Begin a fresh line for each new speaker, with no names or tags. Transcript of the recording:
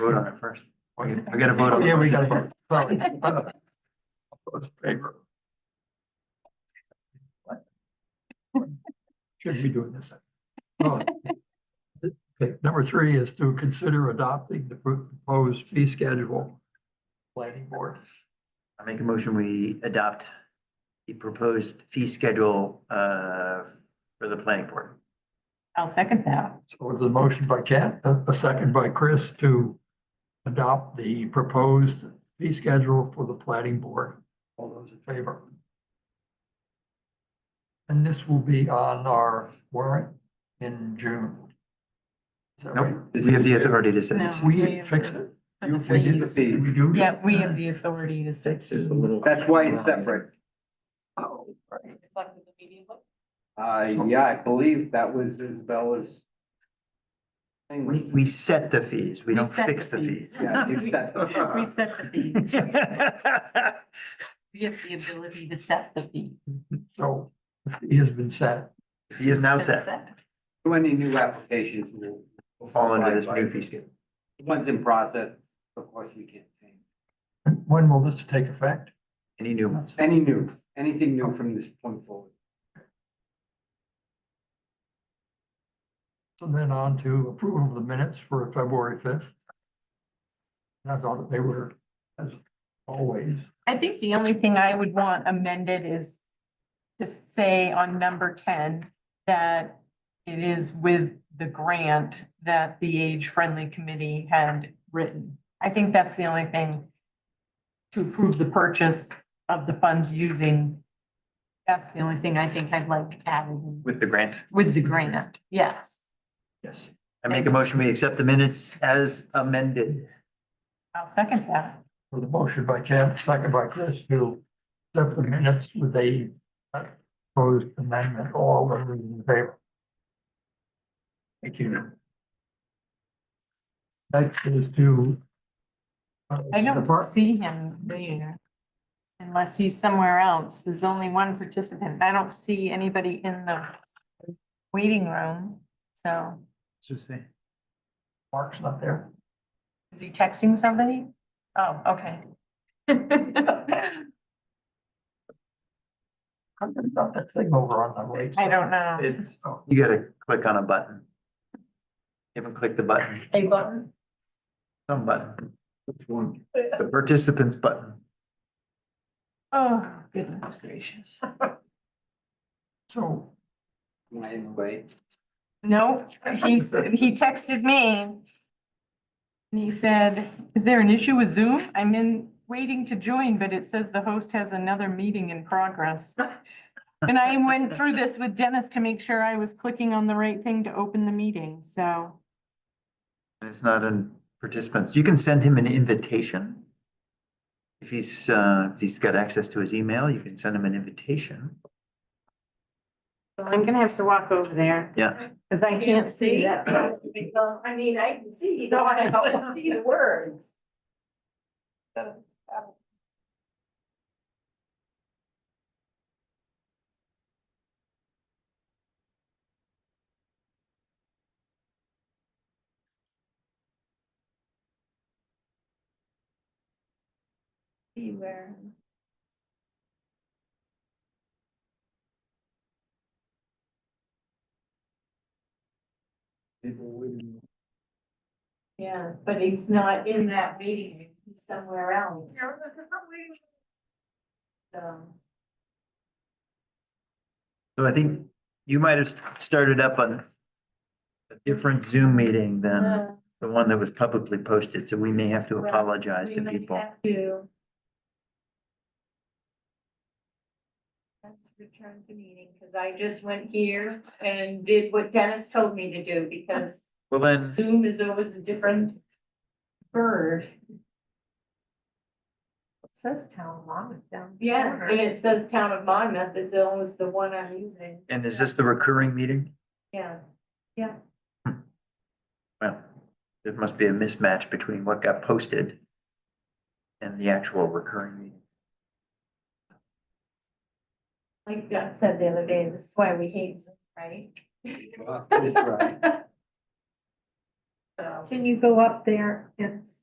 Vote on it first. We we gotta vote on it.
Yeah, we
first.
gotta vote. Sorry.
Those paper.
Shouldn't be doing this. Oh. Okay, Number three is to consider adopting the proposed fee schedule. Planning board.
I make a motion, we adopt the proposed fee schedule uh for the planning board.
I'll second that.
So it's a motion by Kat, a a second by Chris to adopt the proposed fee schedule for the planning board. All those in favor? And this will be on our warrant in June. Is that right?
Nope, we have the authority to set
No.
it.
We fix it?
For the
We did the
fees.
We
fees.
do?
Yeah, we have the authority to set.
That's why it's separate.
Oh, right.
Uh, yeah, I believe that was Isabella's. thing.
We we set the fees, we
We
don't
set
fix the fees.
Yeah, you set-
We set the fees.
Second
We have the ability to set the fee.
So the fee has been set.
Fee is now
It's been
set,
So Any new applications will. will
fall under this
abide
new
by-
fee schedule.
the Ones in process, of course, you can't change.
And When will this take effect?
Any new ones?
Any new, anything new from this point forward.
And then on to approval of the minutes for February fifth. I thought they were, as always,
I think the only thing I would want amended is to say on number ten that it is with the grant that the age-friendly committee had written. I think that's the only thing to approve the purchase of the funds using. That's the only thing I think I'd like added
With the grant?
with the grant, yes.
Yes. I make a motion, we accept the minutes as amended.
I'll second that.
for the motion by Chad, second by Chris, to accept the minutes with a uh, proposed amendment, all those in favor. Thank you. Next is to. uh,
I don't
depart-
see him there. Unless he's somewhere else. There's only one participant. I don't see anybody in the waiting room. So
Just say.
Mark's not there.
is he texting somebody? Oh, okay.
I'm gonna dump that thing over on the right. oh,
I don't know.
It's, you gotta click on a button. You haven't clicked the button,
A button?
some button. Which one? The participants button.
Oh, goodness gracious.
So
Am I in the way?
No, he's, he texted me. And he said, is there an issue with Zoom? I'm in, waiting to join, but it says the host has another meeting in progress. And I went through this with Dennis to make sure I was clicking on the right thing to open the meeting, so.
And it's not in participants. You can send him an invitation. If he's, uh, if he's got access to his email, you can send him an invitation.
I'm gonna have to walk over there.
Yeah.
Cause I can't see that.
Well, I mean, I can see, you know, I don't see the words. So, um, See where. Yeah, but he's not in that meeting, he's somewhere else. So.
So I think you might have started up on a different Zoom meeting than
uh,
the one that was publicly posted, so we may have to
Well,
apologize
we
to
might
people.
have to- Let's return to meeting, because I just went here and did what Dennis told me to do, because
Well, then,
Zoom is always a different bird.
It Says town law is down.
Yeah, and it says town of Monmouth, it's always the one I'm using.
and is this the recurring meeting?
Yeah,
Well, there must be a mismatch between what got posted and the actual recurring meeting.
like Doug said the other day, this is why we hate Zoom, right?
Well, that's right.
So-
Can you go up there? It's.